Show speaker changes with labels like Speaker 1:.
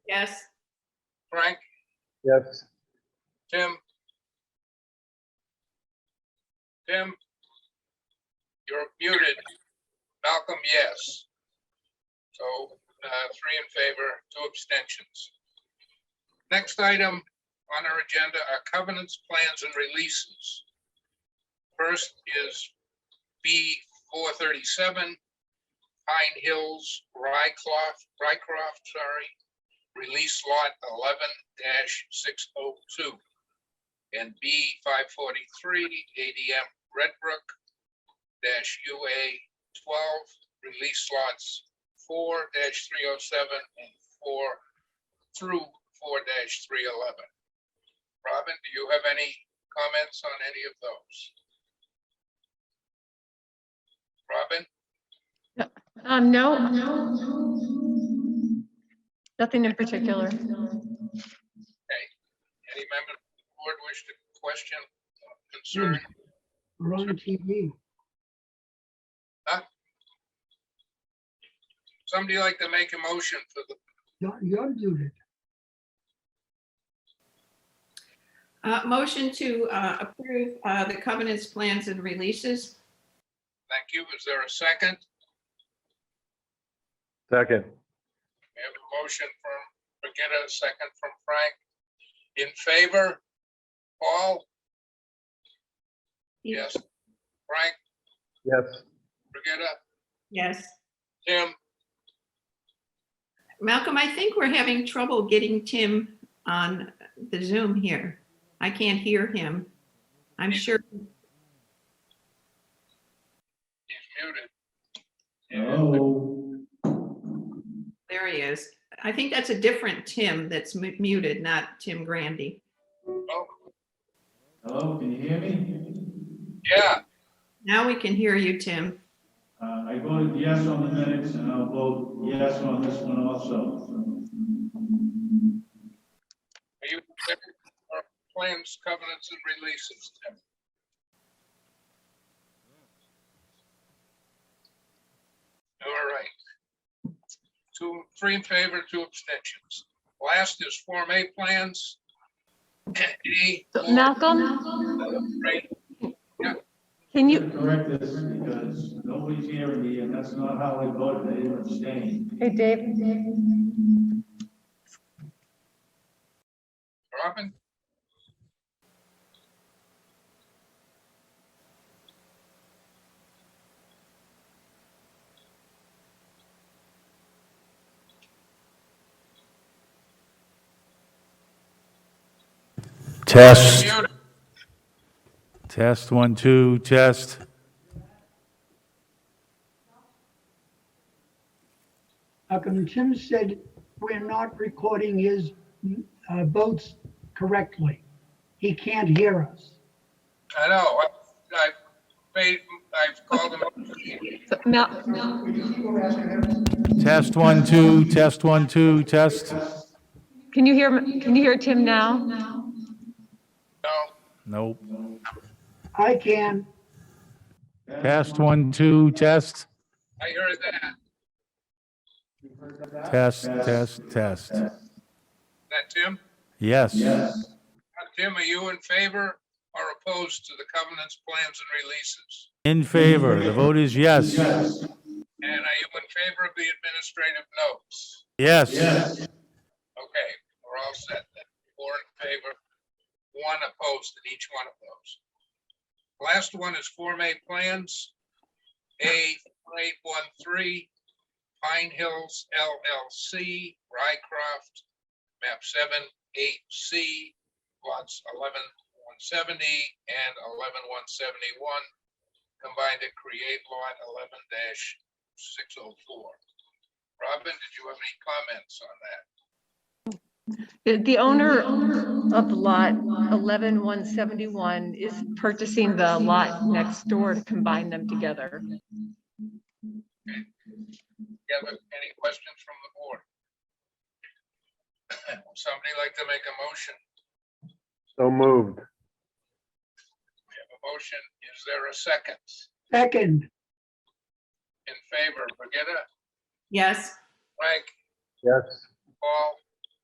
Speaker 1: Yes.
Speaker 2: Frank,
Speaker 3: Yes.
Speaker 2: Tim? Tim? You're muted. Malcolm, yes. So, uh, three in favor, two abstentions. Next item on our agenda are covenants, plans, and releases. First is B four thirty-seven, Pine Hills, Rycroft, Rycroft, sorry, release lot eleven six oh two. And B five forty-three ADM Redbrook dash UA twelve, release lots four three oh seven and four through four three eleven. Robin, do you have any comments on any of those? Robin,
Speaker 1: Um, no. Nothing in particular.
Speaker 2: any member of the board wish to question, or concern?
Speaker 4: Hmm. We're on TV.
Speaker 2: Somebody like to make a motion for the
Speaker 4: You're you're muted.
Speaker 5: Uh, motion to, uh, approve, uh, the covenants, plans and releases.
Speaker 2: Thank you. Is there a second?
Speaker 3: Second.
Speaker 2: We have a motion from Brigitta, a second from Frank. In favor? Paul? Yes. Frank,
Speaker 3: Yes.
Speaker 2: Brigitta,
Speaker 5: Yes.
Speaker 2: Tim?
Speaker 5: Malcolm, I think we're having trouble getting Tim on the Zoom here. I can't hear him. I'm sure,
Speaker 2: He's muted.
Speaker 6: Hello,
Speaker 5: there he is. I think that's a different Tim that's mu- muted, not Tim Grandy.
Speaker 2: Oh,
Speaker 6: hello, can you hear me?
Speaker 2: yeah,
Speaker 5: Now we can hear you, Tim.
Speaker 6: Uh, I voted yes on the minutes and I'll vote yes on this one also.
Speaker 2: are you in favor of plans, covenants, and releases, Tim? All right. Two, three in favor, two abstentions. Last is Form A plans. A, Paul,
Speaker 1: Malcolm,
Speaker 2: Frank,
Speaker 1: can you,
Speaker 6: Correct this because nobody's hearing me and that's not how I voted, I didn't abstain.
Speaker 7: Hey, Dave,
Speaker 2: Robin?
Speaker 8: Test,
Speaker 2: Muted.
Speaker 8: test, one, two, test.
Speaker 4: How come Tim said we're not recording his uh, votes correctly? He can't hear us.
Speaker 2: I know, I- I've made, I've called him,
Speaker 1: Mal,
Speaker 8: Test, one, two, test, one, two, test.
Speaker 7: can you hear, can you hear Tim now?
Speaker 2: no,
Speaker 8: Nope.
Speaker 4: I can.
Speaker 8: Test, one, two, test,
Speaker 2: I heard that,
Speaker 8: test, test, test.
Speaker 2: that Tim?
Speaker 8: Yes.
Speaker 6: Yes,
Speaker 2: Uh, Tim, are you in favor or opposed to the covenants, plans, and releases?
Speaker 8: In favor, the vote is yes.
Speaker 6: yes,
Speaker 2: And are you in favor of the administrative notes?
Speaker 8: Yes.
Speaker 6: yes,
Speaker 2: Okay, we're all set then, four in favor, one opposed in each one of those. Last one is Form A plans, A eight one three, Pine Hills LLC, Rycroft, map seven eight C, lots eleven one seventy and eleven one seventy-one, combined to create lot eleven six oh four. Robin, did you have any comments on that?
Speaker 7: The, the owner of lot 11171 is purchasing the lot next door to combine them together.
Speaker 2: Yeah, but any questions from the board? Somebody like to make a motion?
Speaker 3: So moved.
Speaker 2: We have a motion. Is there a second?
Speaker 4: Second,
Speaker 2: In favor, Brigitta,
Speaker 5: Yes.
Speaker 2: Frank,
Speaker 3: Yes.
Speaker 2: Paul,